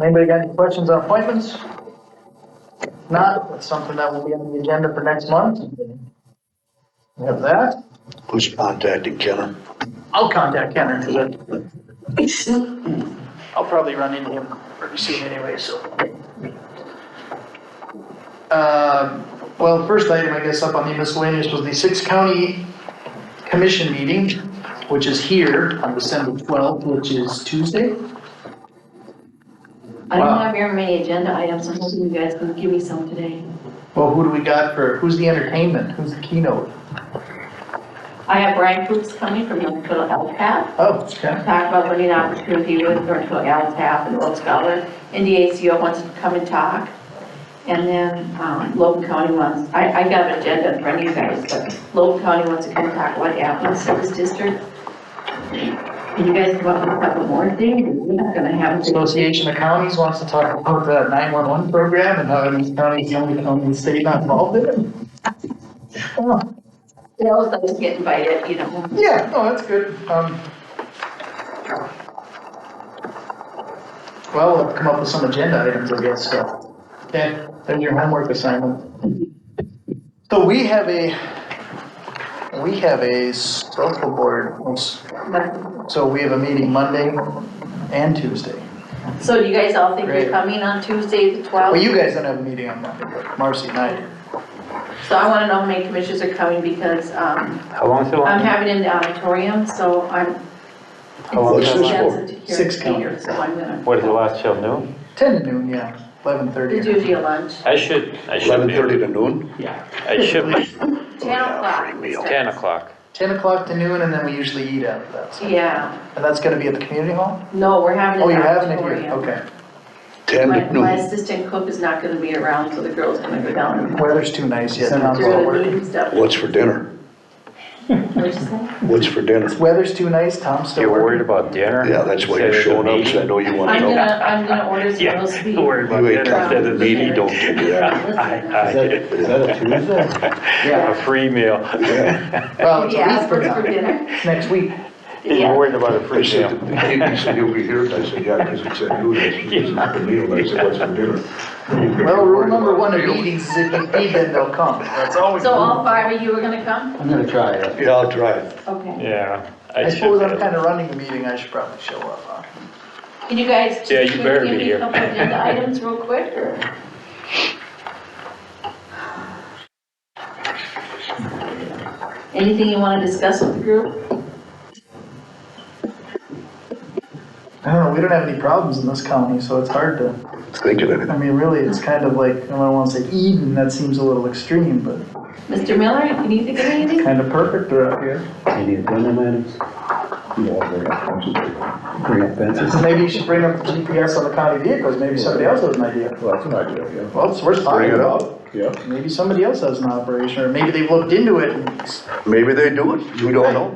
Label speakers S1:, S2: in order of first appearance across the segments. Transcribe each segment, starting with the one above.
S1: Anybody got any questions on appointments? If Not, it's something that will be on the agenda for next month. We have that.
S2: Who's contacting Kenner?
S1: I'll contact Kenner, 'cause I- I'll probably run into him pretty soon anyway, so. Um, Well, first item, I guess, up on the miscellaneous was the six county commission meeting, which is here on December 12th, which is Tuesday.
S3: I don't
S1: Wow.
S3: have very many agenda items, I'm hoping you guys can give me some today.
S1: Well, who do we got for, who's the entertainment? Who's the keynote?
S3: I have Brian Fuchs coming from Northfield LCAP,
S1: Oh, okay.
S3: talk about learning opportunity with Northfield LCAP and Old Scholar. NDACO wants to come and talk, and then um, Logan County wants, I, I got an agenda in front of you guys, but Logan County wants to come talk about Apple's service district. And you guys want to talk about more things, we're not gonna have. a big-
S1: Association of Counties wants to talk about the 911 program and how Evans County is the only county in the state not involved in it. Oh,
S3: They always like to get invited, you know.
S1: Yeah, no, that's good. Um, Well, we'll have to come up with some agenda items, I guess, so. Okay, there's your homework assignment. So we have a, we have a social board,
S3: but-
S1: so we have a meeting Monday and Tuesday.
S3: So do you guys all think
S1: Great.
S3: you're coming on Tuesday, the
S1: Well,
S3: 12th?
S1: you guys don't have a meeting on Monday, but Marcy and I do.
S3: So I want to know how many commissioners are coming because um,
S4: How long's it?
S3: I'm having it in the auditorium, so I'm.
S4: How long
S2: is
S3: it's
S2: this
S3: a chance
S2: for?
S3: to hear
S1: Six
S3: it later, So I'm gonna,
S4: What is the last till noon?
S1: Ten to noon, yeah, eleven thirty.
S3: it's usually a lunch,
S4: I should, I should
S2: Eleven
S4: be.
S2: thirty to noon?
S4: Yeah. I should be,
S3: 10 o'clock.
S2: free meal.
S4: ten o'clock.
S1: Ten o'clock to noon, and then we usually eat after that, so.
S3: Yeah,
S1: And that's gonna be at the community hall?
S3: no, we're having it
S1: Oh,
S3: in
S1: you're
S3: the
S1: having it here,
S3: auditorium.
S1: okay.
S2: Ten
S3: My
S2: to
S3: my
S2: noon.
S3: assistant cook is not going to be around, so the girl's going to go down and
S1: Weather's too nice yet.
S3: do the meeting stuff.
S2: What's for dinner?
S3: What'd you say?
S2: What's for dinner?
S1: Weather's too nice, Tom's still
S4: You're worried
S1: working.
S4: about dinner?
S2: Yeah, that's why
S4: Instead
S2: you're
S4: of
S2: showing up, because I
S4: meeting?
S2: know you want
S3: I'm
S2: to
S3: gonna,
S2: know.
S3: I'm gonna order some roast beef.
S4: You're worried
S2: You ain't
S4: about dinner
S2: coming
S4: instead
S2: to
S4: of
S2: the meeting,
S4: meeting.
S2: don't do that.
S3: Listen,
S4: I, I,
S5: Is that- is that a Tuesday?
S4: a free meal.
S1: Well,
S3: Did
S1: it's
S3: you
S1: a week
S3: ask
S1: from
S3: what's for
S1: now,
S3: dinner?
S1: It's next week.
S4: You're worried about a
S2: He
S4: free
S2: said,
S4: meal.
S2: he said, you'll be here, and I said, yeah, because it's at noon, it's it's not the meal, I said, what's for dinner?
S1: Well, rule number one of meetings is if you feed them, they'll come. That's
S4: Oh,
S1: always.
S3: So all five of you are gonna come?
S5: I'm gonna try it.
S2: Yeah, I'll try it.
S3: Okay.
S4: Yeah.
S1: I
S4: should
S1: suppose
S4: be
S1: I'm
S4: able-
S1: kinda running the meeting, I should probably show up, huh?
S3: Can you guys?
S4: Yeah, you better
S3: give
S4: be
S3: me
S4: here.
S3: a couple agenda items real quick, or? Anything you wanna discuss with the group?
S1: I don't know, we don't have any problems in this county, so it's hard to.
S2: Thinking of it.
S1: I mean, really, it's kind of like, I don't want to say Eden, that seems a little extreme, but
S3: Mr. Miller, can you think of anything?
S1: kind of perfect around here.
S5: Any agenda items? Yeah, very offensive. Very offensive.
S1: Maybe you should bring up the GPS on the county vehicles, maybe somebody else has an idea.
S5: Well, that's an idea,
S1: Well, it's worth
S2: Bring
S1: talking
S2: it
S1: about.
S2: up.
S5: yeah. Yeah.
S1: Maybe somebody else has an operation, or maybe they've looked into it. and-
S2: Maybe they do it, you don't know.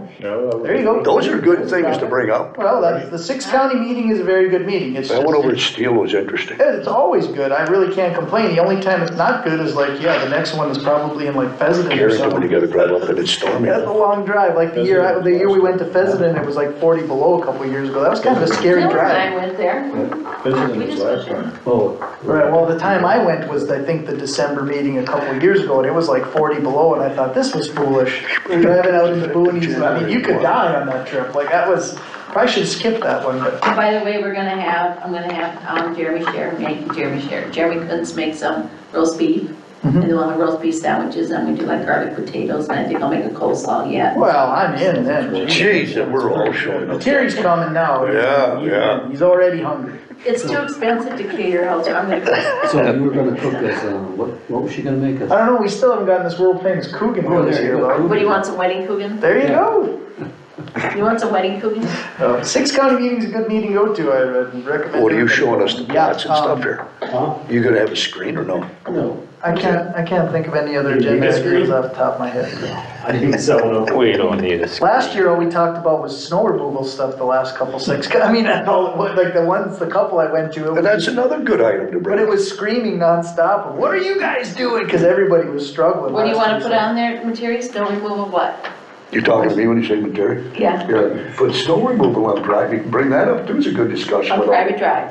S1: There you go.
S2: Those are good things to bring up.
S1: Well, that, the six county meeting is a very good meeting, it's
S2: That
S1: just,
S2: one over at Steele was interesting.
S1: it's always good, I really can't complain, the only time it's not good is like, yeah, the next one is probably in like Pheasant or
S2: Carrington, when you
S1: something.
S2: gotta drive up and it's stormy.
S1: That's a long drive, like the year, I- the year we went to Pheasant, it was like forty below a couple of years ago, that was kind of a scary
S3: Miller
S1: drive.
S3: and I went there. We just went there.
S5: Oh.
S1: Right, well, the time I went was, I think, the December meeting a couple of years ago, and it was like forty below, and I thought, this was foolish. We're Driving out in the boonies, and I mean, you could die on that trip, like, that was, probably should skip that one, but,
S3: By the way, we're gonna have, I'm gonna have um, Jeremy Sher make, Jeremy Sher, Jeremy Clintz make some roast beef. And then we'll have roast beef sandwiches, and we do like garlic potatoes, and I think I'll make a coleslaw yet.
S1: well, I'm in then.
S2: Jeez, that we're all showing up.
S1: Terry's coming now.
S2: Yeah, yeah.
S1: He's already hungry.
S3: It's too expensive to cater out, so I'm gonna go.
S5: So you were gonna cook us, uh, what, what was she gonna make
S1: I
S5: us?
S1: don't know, we still haven't gotten this world famous Coogan
S5: Oh,
S1: this
S5: there
S1: year,
S5: you go.
S1: though.
S3: What do you want, some wedding coogan?
S1: There you go.
S3: You want some wedding coogan?
S5: Oh.
S1: Uh, Six county meeting's a good meeting to go to, I would recommend.
S2: What are you
S1: it.
S2: showing us, the plots and
S1: um,
S2: stuff here?
S5: Huh?
S2: You gonna have a screen or no?
S5: No.
S1: I can't, I can't think of any other
S5: You
S1: agenda
S5: disagree?
S1: items off the top of my head.
S5: I think so.
S4: We don't need a screen.
S1: Last year, all we talked about was snow removal stuff the last couple six, I mean, I know, like the ones, the couple I went to, it
S2: And
S1: was-
S2: that's another good item to
S1: but
S2: bring
S1: it
S2: up.
S1: was screaming nonstop, of, what are you guys doing? Cause everybody was struggling.
S3: What do you
S1: last
S3: wanna put
S1: Tuesday.
S3: on there, materials, no removal what?
S2: You talking to me when you say Terry?
S3: yeah,
S2: Yeah, but snow removal on private, bring that up, too, it's a good discussion.
S3: on
S2: with all-
S3: private drive.